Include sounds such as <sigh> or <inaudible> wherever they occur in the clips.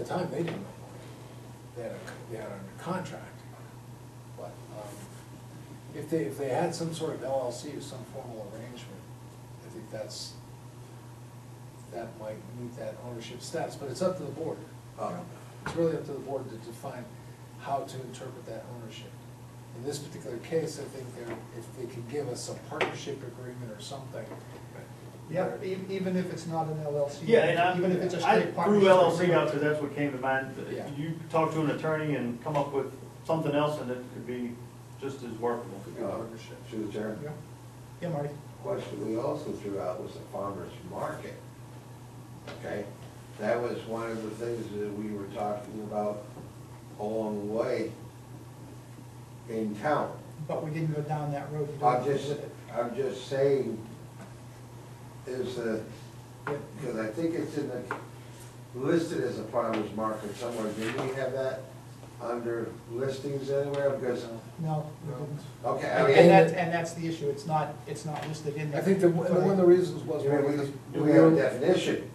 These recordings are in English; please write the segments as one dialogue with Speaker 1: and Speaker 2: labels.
Speaker 1: At the time, they didn't, they had, a- they had a contract, but, um, if they, if they had some sort of LLC or some formal arrangement, I think that's, that might meet that ownership status, but it's up to the board. you
Speaker 2: Uh-huh.
Speaker 1: know?
Speaker 3: Um,
Speaker 1: It's really up to the board to define how to interpret that ownership. In this particular case, I think they're, if they could give us a partnership agreement or something.
Speaker 2: Yeah, e- even if it's not an LLC.
Speaker 4: Yeah, and I,
Speaker 2: Even if it's a
Speaker 4: I
Speaker 2: straight
Speaker 4: threw
Speaker 2: partnership.
Speaker 4: LLC out because that's what came to mind.
Speaker 1: Yeah.
Speaker 4: You talk to an attorney and come up with something else and it could be just as workable.
Speaker 1: Could be a partnership.
Speaker 3: Through the chair.
Speaker 2: Yeah. Yeah, Marty.
Speaker 3: Question we also threw out was the farmer's market. Okay? That was one of the things that we were talking about along the way in town.
Speaker 2: But we didn't go down that road. You don't
Speaker 3: I'm
Speaker 2: agree
Speaker 3: just,
Speaker 2: with it.
Speaker 3: I'm just saying, is the, because I think it's in the, listed as a farmer's market somewhere. Did we have that under listings anywhere? Because,
Speaker 2: No, we
Speaker 1: No.
Speaker 2: didn't.
Speaker 3: okay, I mean.
Speaker 2: And that's, and that's the issue. It's not, it's not listed in there.
Speaker 1: I think the, one
Speaker 2: But
Speaker 1: of the reasons was.
Speaker 3: You
Speaker 1: we-
Speaker 3: know, We we have a definition.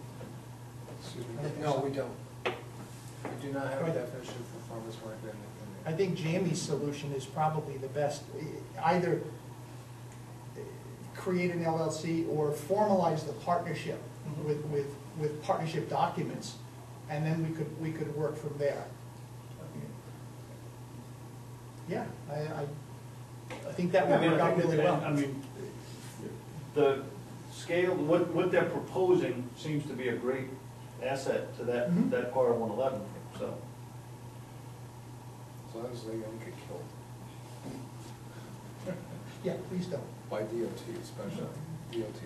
Speaker 1: Excuse me, no, we don't. We do not have a definition for farmer's market in
Speaker 2: I
Speaker 1: in
Speaker 2: think Jamie's solution is probably the best. E- Either eh, create an LLC or formalize the partnership with, with, with partnership documents, and then we could, we could work from there. Yeah, I, I, I think that
Speaker 4: I
Speaker 2: would
Speaker 4: mean,
Speaker 2: work
Speaker 4: I
Speaker 2: out
Speaker 4: think
Speaker 2: really
Speaker 4: that-
Speaker 2: well.
Speaker 4: I mean, the scale, what, what they're proposing seems to be a great asset to
Speaker 2: Mhm.
Speaker 4: that, that part of one eleven, so.
Speaker 1: As long as they don't get killed <laughs>
Speaker 2: Yeah, please don't.
Speaker 1: by DOT especially, DOT.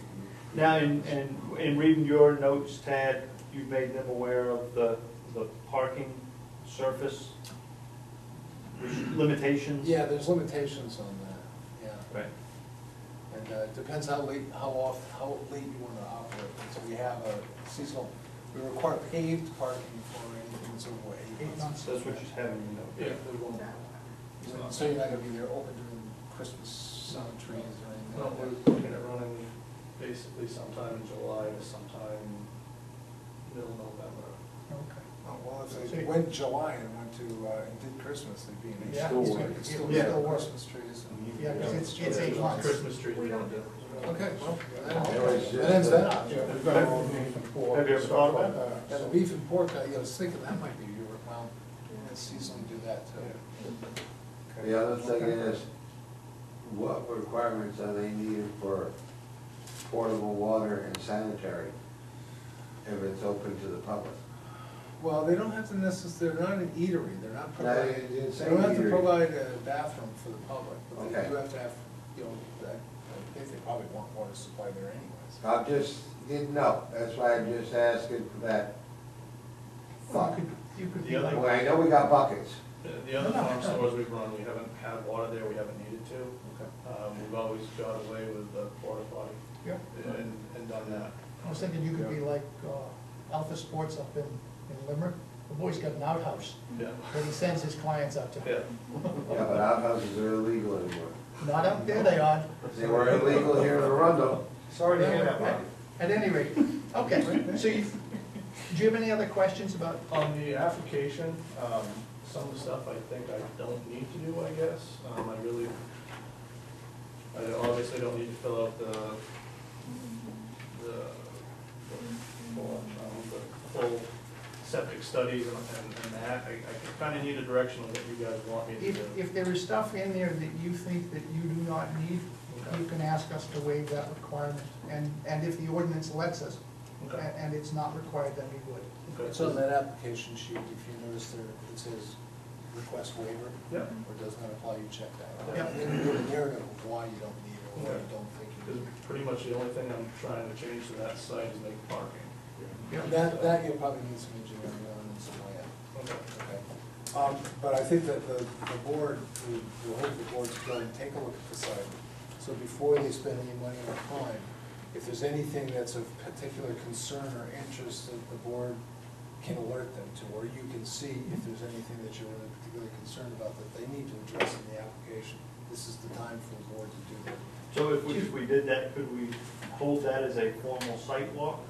Speaker 4: Now, in, in, in reading your notes, Tad, you've made them aware of the, the parking surface limitations?
Speaker 1: Yeah, there's limitations on that, yeah.
Speaker 4: Right.
Speaker 1: And uh, it depends how late, how off, how late you want to operate. So we have a seasonal, we require paved parking for anything that's over eight
Speaker 2: Eight
Speaker 1: months.
Speaker 2: months.
Speaker 4: So that's what she's having in
Speaker 1: Yeah,
Speaker 4: note.
Speaker 1: they won't- So you're not gonna be there open during Christmas, sun trees or anything.
Speaker 5: Well, we're looking at running basically sometime in July to sometime middle November.
Speaker 2: Okay.
Speaker 1: Oh, Well, if they went July and went to, uh, and did Christmas, they'd be in.
Speaker 2: Yeah,
Speaker 1: Still
Speaker 2: it's
Speaker 1: work.
Speaker 2: gonna-
Speaker 1: Still
Speaker 2: it'll
Speaker 1: work.
Speaker 2: still work.
Speaker 1: Christmas trees and.
Speaker 2: Yeah, 'cause it's, it's eight
Speaker 5: Yeah,
Speaker 2: months.
Speaker 5: Christmas tree.
Speaker 6: We don't do.
Speaker 1: Okay, well,
Speaker 3: It was just
Speaker 1: that that ends that
Speaker 3: a-
Speaker 1: up.
Speaker 7: we've got all the beef and pork and
Speaker 4: Have you ever
Speaker 7: stuff
Speaker 4: thought
Speaker 7: like
Speaker 4: about
Speaker 7: that,
Speaker 1: And the
Speaker 7: so-
Speaker 1: beef and pork, I was thinking that might be year round, and seasonally do that too.
Speaker 3: The other thing is, what requirements are they needed for portable water and sanitary if it's open to the public?
Speaker 1: Well, they don't have to necessarily, they're not an eatery, they're not
Speaker 3: No,
Speaker 1: providing,
Speaker 3: it
Speaker 1: they
Speaker 3: didn't say
Speaker 1: don't have to
Speaker 3: eatery.
Speaker 1: provide a bathroom for the public, but they
Speaker 3: Okay.
Speaker 1: do have to have, you know, that- I think they probably want water supply there anyways.
Speaker 3: I just didn't know, that's why I'm just asking for that
Speaker 2: You
Speaker 3: thought.
Speaker 2: could, you could be
Speaker 5: The other
Speaker 2: like.
Speaker 3: Well, I know we got buckets,
Speaker 5: The, the other farm stores we've run, we haven't had water there, we haven't needed to. Um, we've always got away with the porta potty
Speaker 2: Yeah.
Speaker 5: and, and done that.
Speaker 2: I was thinking you could be like uh, Alpha Sports up in, in Limerick. The boy's got an outhouse
Speaker 5: Yeah.
Speaker 2: that he sends his clients out
Speaker 5: Yeah.
Speaker 2: to.
Speaker 3: yeah, but outhouses are illegal anymore.
Speaker 2: Not out there, they are.
Speaker 3: They were illegal here in Arundel.
Speaker 2: Sorry to hear that, At any rate, okay, so you, do you have any other questions about,
Speaker 5: On the application, um, some of the stuff I think I don't need to do, I guess. Um, I really, I obviously don't need to fill out the, the, the full, um, the full septic studies and, and and that. I, I kinda need a direction of what you guys want me to
Speaker 2: if,
Speaker 5: do.
Speaker 2: if there is stuff in there that you think that you do not need, you can ask us to waive that requirement. And, and if the ordinance lets us, a-
Speaker 5: Okay.
Speaker 2: and it's not required, then we would.
Speaker 5: Okay.
Speaker 1: It's on that application sheet, if you notice there, it says request waiver,
Speaker 5: Yeah,
Speaker 1: or does not apply, you check that. out.
Speaker 2: Yeah.
Speaker 1: Then you give a narrative of why you don't need it, or why you don't think you
Speaker 5: because
Speaker 1: need
Speaker 5: pretty much the only thing I'm trying to change to that site is make parking.
Speaker 1: it. That, that you'll probably need some engineering on and some layout.
Speaker 5: Okay.
Speaker 1: Okay. Um, But I think that the, the board, we we hope the board's going to take a look at the site. So before they spend any money or time, if there's anything that's of particular concern or interest that the board can alert them to, or you can see if there's anything that you're really particularly concerned about that they need to address in the application, this is the time for the board to do that.
Speaker 4: So if we, if we did that, could we hold that as a formal site walk?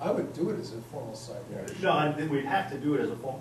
Speaker 1: I would do it as a formal site.
Speaker 7: Yeah.
Speaker 4: No, I think we'd have to do it as a form,